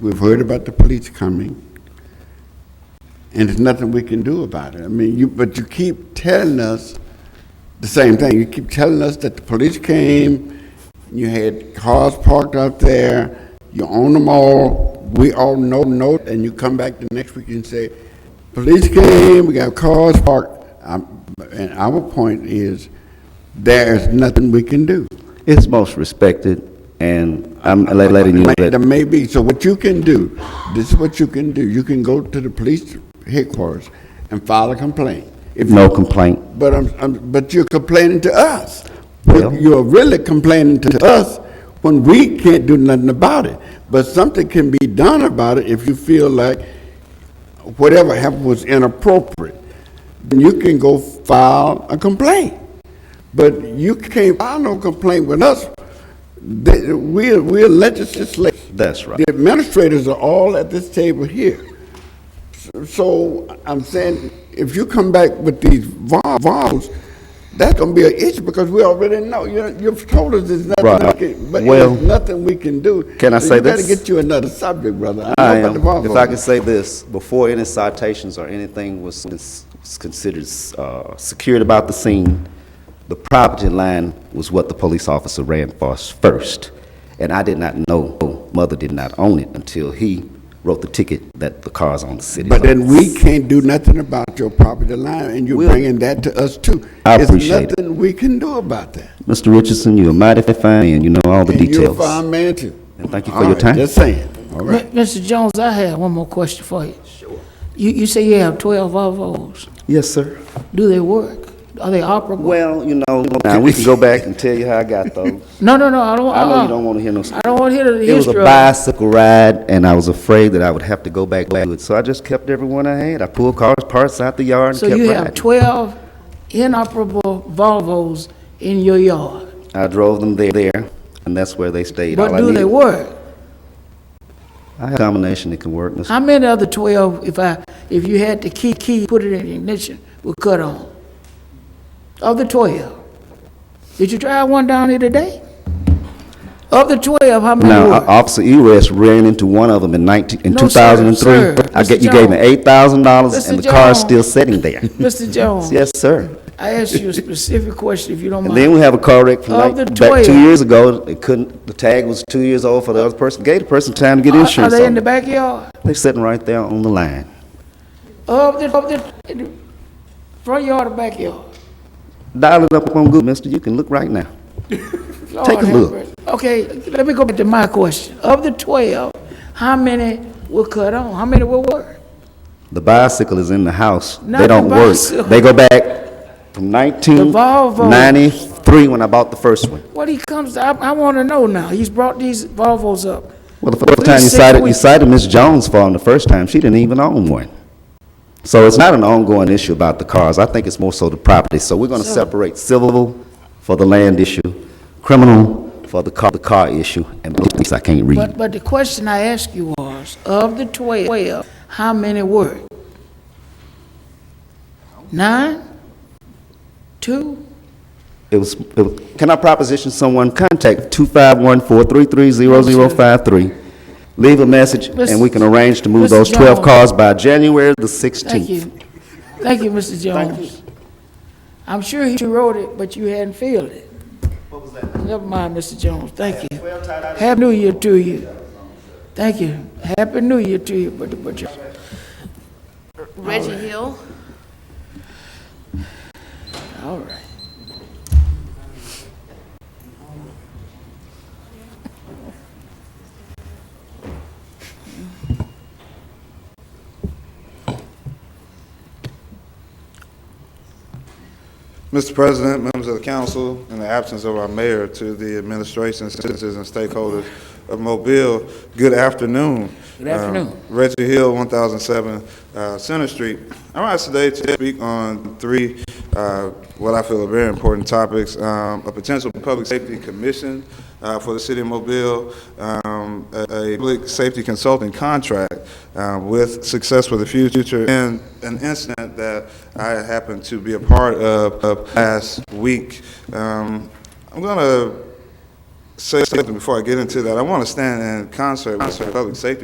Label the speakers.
Speaker 1: We've heard about the police coming, and there's nothing we can do about it. I mean, you, but you keep telling us the same thing. You keep telling us that the police came, you had cars parked out there, you own them all, we all know, know, and you come back the next week and say, police came, we got cars parked. Um, And our point is, there is nothing we can do.
Speaker 2: It's most respected, and I'm let- letting you know
Speaker 1: There
Speaker 2: that.
Speaker 1: may be, so what you can do, this is what you can do, you can go to the police headquarters and file a complaint. If
Speaker 2: No
Speaker 1: you-
Speaker 2: complaint.
Speaker 1: But I'm, I'm, but you're complaining to us.
Speaker 2: Well-
Speaker 1: You're really complaining to us when we can't do nothing about it. But something can be done about it if you feel like whatever happened was inappropriate. Then you can go file a complaint. But you can't file no complaint with us. They- We're, we're legislators.
Speaker 2: That's right.
Speaker 1: The administrators are all at this table here. So I'm saying, if you come back with these vol- vols, that's gonna be an issue because we already know, you, you've told us there's nothing, we
Speaker 2: Right.
Speaker 1: can- but
Speaker 2: Well,
Speaker 1: there's nothing we can do.
Speaker 2: can I
Speaker 1: So
Speaker 2: say
Speaker 1: You
Speaker 2: this?
Speaker 1: better get you another subject, brother.
Speaker 2: I
Speaker 1: know about
Speaker 2: am,
Speaker 1: the vol
Speaker 2: if I can
Speaker 1: votes.
Speaker 2: say this, before any citations or anything was cons- was considered uh, secured about the scene, the property line was what the police officer ran for us first. And I did not know, mother did not own it until he wrote the ticket that the car's on the city.
Speaker 1: But then we
Speaker 2: limits.
Speaker 1: can't do nothing about your property line and you're
Speaker 2: We'll-
Speaker 1: bringing that to us too.
Speaker 2: I appreciate it.
Speaker 1: There's nothing we can do about that.
Speaker 2: Mr. Richardson, you're a mighty fine man, you know all the
Speaker 1: And you're a
Speaker 2: details.
Speaker 1: fine man too.
Speaker 2: And thank you for
Speaker 1: All
Speaker 2: your
Speaker 1: right,
Speaker 2: time.
Speaker 1: Just saying, all right.
Speaker 3: Mi- Mr. Jones, I have one more question for you. Sure. You, you say you have twelve Volvos.
Speaker 2: Yes, sir.
Speaker 3: Do they work? Are they operable?
Speaker 2: Well, you know, now we can go back and tell you how I got those.
Speaker 3: No, no, no, I don't,
Speaker 2: I know you
Speaker 3: uh-uh.
Speaker 2: don't want to hear no.
Speaker 3: I don't want to hear the history
Speaker 2: It was a
Speaker 3: of it.
Speaker 2: bicycle ride, and I was afraid that I would have to go back to it, so I just kept everyone I had. I pulled cars, parts out the yard, and
Speaker 3: So
Speaker 2: kept
Speaker 3: you have
Speaker 2: riding.
Speaker 3: twelve inoperable Volvos in your yard,
Speaker 2: I drove them there, there, and that's where they stayed. All
Speaker 3: but
Speaker 2: I
Speaker 3: do they
Speaker 2: needed-
Speaker 3: work?
Speaker 2: I have a combination that can work, Mr.
Speaker 3: How many other twelve, if I, if you had the key, key, put it in the ignition, would cut on? Of the twelve? Did you drive one down here today? Of the twelve, how many
Speaker 2: Now,
Speaker 3: work?
Speaker 2: O- Officer Eres ran into one of them in nineteen, in
Speaker 3: No,
Speaker 2: two
Speaker 3: sir,
Speaker 2: thousand and
Speaker 3: sir.
Speaker 2: three. I
Speaker 3: Mr.
Speaker 2: get, you gave me
Speaker 3: Jones.
Speaker 2: eight thousand dollars, and
Speaker 3: Mr.
Speaker 2: the car's
Speaker 3: Jones.
Speaker 2: still sitting there.
Speaker 3: Mr. Jones,
Speaker 2: Yes, sir.
Speaker 3: I asked you a specific question, if you don't
Speaker 2: And then
Speaker 3: mind.
Speaker 2: we have a car wreck from
Speaker 3: Of
Speaker 2: like,
Speaker 3: the
Speaker 2: back two
Speaker 3: 12.
Speaker 2: years ago, it couldn't, the tag was two years old for the other person, gave the person time to get
Speaker 3: Are-
Speaker 2: insurance
Speaker 3: Are they
Speaker 2: on
Speaker 3: in the
Speaker 2: it.
Speaker 3: backyard? Oh,
Speaker 2: They're sitting right there on the line.
Speaker 3: Of the, of the, in the front yard or backyard?
Speaker 2: Dial it up on Google, mister, you can look right now.
Speaker 3: Lord
Speaker 2: Take a
Speaker 3: have
Speaker 2: look.
Speaker 3: mercy. Okay, let me go back to my question. Of the twelve, how many will cut on? How many will work?
Speaker 2: The bicycle is in the house.
Speaker 3: Not
Speaker 2: They
Speaker 3: the
Speaker 2: don't work.
Speaker 3: bicycle.
Speaker 2: They go back from nineteen
Speaker 3: Volvo.
Speaker 2: ninety-three when I bought the first one.
Speaker 3: What he comes, I, I want to know now. He's brought these Volvos up.
Speaker 2: Well, the first
Speaker 3: Please
Speaker 2: time you
Speaker 3: sit
Speaker 2: cited, you
Speaker 3: with-
Speaker 2: cited Ms. Jones for them the first time, she didn't even own one. So it's not an ongoing issue about the cars. I think it's more so the property. So we're gonna
Speaker 3: So-
Speaker 2: separate civil for the land issue, criminal for the car, the car issue, and police, I can't read.
Speaker 3: But, but the question I asked you was, of the twelve, how many work? Nine? Two?
Speaker 2: It was, it was- can I proposition someone, contact two five one four three three zero zero five three. Leave a message, and we can arrange to move
Speaker 3: Mr.
Speaker 2: those twelve
Speaker 3: Jones.
Speaker 2: cars by January the
Speaker 3: Thank
Speaker 2: sixteenth.
Speaker 3: you. Thank you, Mr. Jones. I'm sure he wrote it, but you hadn't filled it. Never mind, Mr. Jones, thank you. Happy New Year to you. Thank you. Happy New Year to you, but, but you.
Speaker 4: Reggie Hill.
Speaker 3: All right.
Speaker 5: Mr. President, members of the council, in the absence of our mayor, to the administration, citizens, and stakeholders of Mobile, good afternoon.
Speaker 3: Good afternoon.
Speaker 5: Um, Reggie Hill, 1007 uh, Center Street. I'm asked today to speak on three, uh, what I feel are very important topics. Um, A potential public safety commission uh, for the city of Mobile, um, a a public safety consulting contract uh, with Success for the Future, and an incident that I happened to be a part of of last week. Um, I'm going to say something before I get into that. I want to stand in concert with the public safety